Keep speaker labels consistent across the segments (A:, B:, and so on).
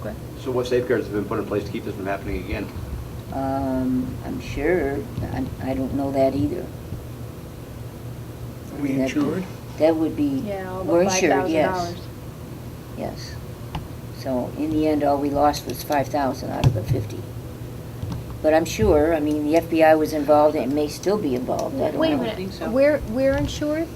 A: Okay.
B: So what safeguards have been put in place to keep this from happening again?
A: Um, I'm sure, I, I don't know that either.
C: Are we
A: That-
C: insured?
A: That would be,
D: Yeah, all
A: we're
D: but five
A: insured,
D: thousand
A: yes,
D: dollars.
A: yes. So in the end, all we lost was five thousand out of the fifty. But I'm sure, I mean, the FBI was involved and may still be involved, I don't know.
D: Wait a
C: think so.
D: minute, we're, we're insured?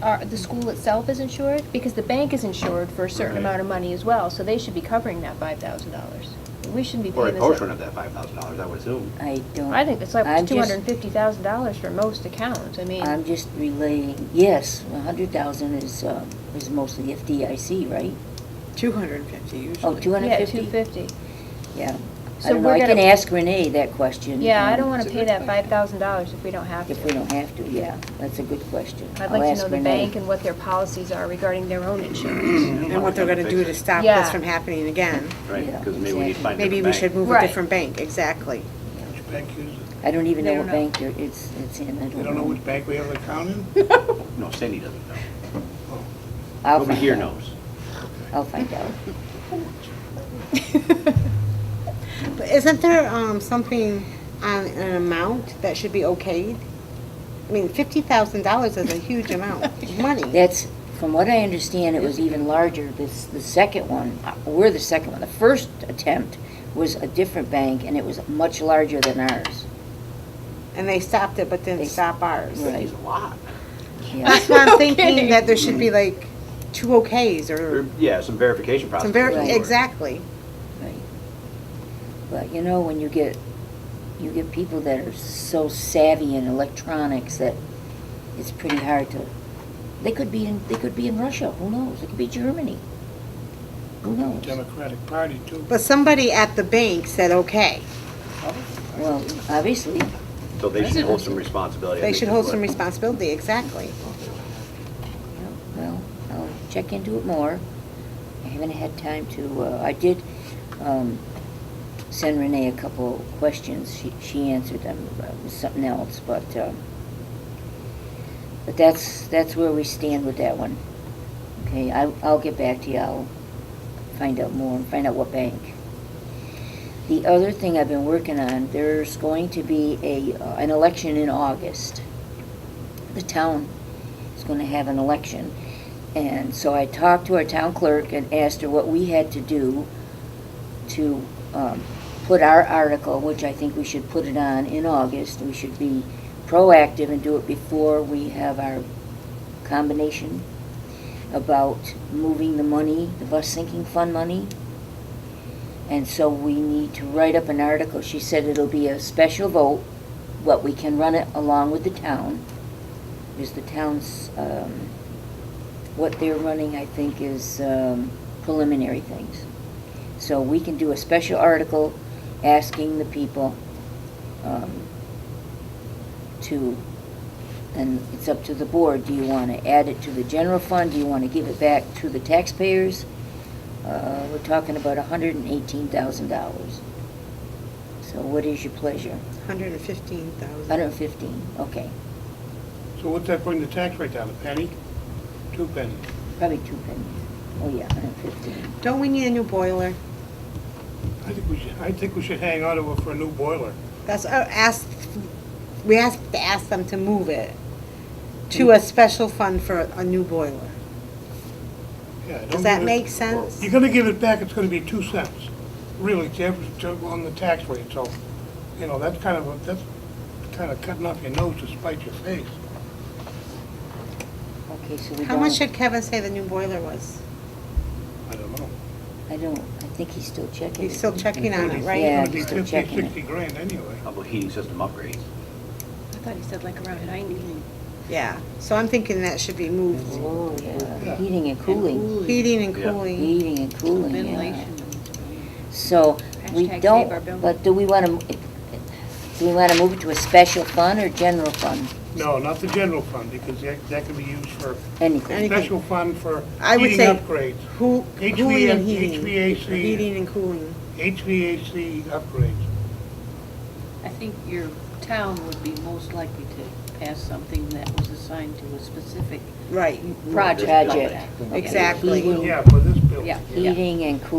D: Are, the school itself is insured? Because the bank is insured for a certain
B: Right.
D: amount of money as well, so they should be covering that five thousand dollars. We shouldn't be
B: Or a
D: paying this.
B: portion of that five thousand dollars, I would assume.
A: I don't.
D: I think it's like
A: I'm
D: two
A: just-
D: hundred and fifty thousand dollars for most accounts, I mean.
A: I'm just relaying, yes, a hundred thousand is, uh, is mostly FDIC, right?
C: Two hundred and fifty usually.
A: Oh, two hundred
D: Yeah, two
A: fifty?
D: fifty.
A: Yeah. I
D: So
A: don't know,
D: we're
A: I can
D: gonna-
A: ask Renee that question.
D: Yeah, I
A: um,
D: don't wanna
C: It's a
D: pay
C: good
D: that
C: question.
D: five thousand dollars if we don't have to.
A: If we don't have to, yeah, that's a good question.
D: I'd
A: I'll
D: like to
A: ask
D: know the
A: Renee.
D: bank and what their policies are regarding their own insurance.
C: And what they're gonna do to stop
D: Yeah.
C: this from happening again.
B: Right,
A: Yeah,
B: because maybe we need to
A: exactly.
B: find a
C: Maybe we should
B: different bank.
C: move a
D: Right.
C: different bank, exactly.
E: Which bank is it?
A: I don't even
D: They
A: know what
D: don't know.
A: bank there- it's, it's in, I
E: They
A: don't
E: don't know
A: know.
E: which bank we have an account in?
B: No, Cindy doesn't know.
A: I'll
B: Nobody
A: find
B: here
A: out.
B: knows.
A: I'll find out.
C: But isn't there, um, something on an amount that should be okayed? I mean, fifty thousand dollars is a huge amount of money.
A: That's, from what I understand, it was even larger, this, the second one, uh, we're the second one. The first attempt was a different bank, and it was much larger than ours.
C: And they stopped it, but
A: They-
C: didn't stop ours.
A: Right.
B: Cindy's a lot.
A: Yeah.
C: That's what I'm
D: Okay.
C: thinking, that there should be like two okays
B: Or,
C: or
B: Yeah, some verification process.
C: some very,
A: Right.
C: exactly.
A: Right. But you know, when you get, you get people that are so savvy in electronics that it's pretty hard to, they could be in, they could be in Russia, who knows? It could be Germany. Who knows?
E: Democratic Party too.
C: But somebody at the bank said, okay.
A: Well, obviously,
B: So they should hold some responsibility. I
C: They
B: think
C: should
B: is
C: hold
B: what-
C: some responsibility, exactly.
A: Yeah, Well, I'll check into it more. I haven't had time to, uh, I did um, send Renee a couple questions. She she answered them uh, with something else, but, um, but that's, that's where we stand with that one. Okay, I- I'll get back to you. I'll find out more and find out what bank. The other thing I've been working on, there's going to be a, uh, an election in August. The town is going to have an election. And so I talked to our town clerk and asked her what we had to do to um, put our article, which I think we should put it on in August. We should be proactive and do it before we have our combination about moving the money, the bus sinking fund money. And so we need to write up an article. She said it'll be a special vote, but we can run it along with the town. Because the town's, um, what they're running, I think, is um, preliminary things. So we can do a special article asking the people um, to, and it's up to the board, do you want to add it to the general fund? Do you want to give it back to the taxpayers? Uh, We're talking about $118,000. So what is your pleasure?
C: Hundred and fifteen thousand.
A: 115, okay,
E: So what's that bring the tax rate down, a penny? Two pennies?
A: probably two pennies. Oh, yeah, 115.
C: Don't we need a new boiler?
E: I think we should, I think we should hang on to it for a new boiler.
C: That's, uh, ask, we have to ask them to move it to
A: Mm.
C: a special fund for a new boiler.
E: Yeah, don't
C: Does that
E: give it-
C: make sense?
E: You're gonna give it back, it's gonna be two cents, really, to ev- to- on the tax rate, so, you know, that's kind of, a- that's kind of cutting off your nose to spite your face.
A: Okay, so we don't.
C: How much did Kevin say the new boiler was?
E: I don't know.
A: I don't, I think he's still checking.
C: He's still checking on it, right?
A: Mm. Yeah,
E: It's
A: he's
E: gonna
A: still
E: be fifty,
A: checking
E: sixty
A: it.
E: grand anyway.
B: How about heating system upgrades?
F: I thought he said like around ninety.
C: Yeah, so I'm thinking that should be moved.
A: Oh, yeah,
E: Yeah.
A: heating and cooling,
C: Heating and
B: Yeah.
C: cooling.
A: heating and cooling, yeah.
F: Ventilation.
A: So, we
F: Hashtag save our
A: don't,
F: building.
A: but do we want to, do we want to move it to a special fund or general fund?
E: No, not the general fund, because that, that can be used for
A: Anything,
C: Any-
E: special fund for
C: I would
E: heating
C: say-
E: upgrades,
C: Who, cooling and heating.
E: HVAC.
C: Heating and cooling.
E: HVAC upgrades.
F: I think your town would be most likely to pass something that was assigned to a specific
C: Right,
F: project.
A: Project.
F: like that.
C: exactly.
A: Heating.
E: Yeah, for this building.
F: Yeah.
A: heating and cooling.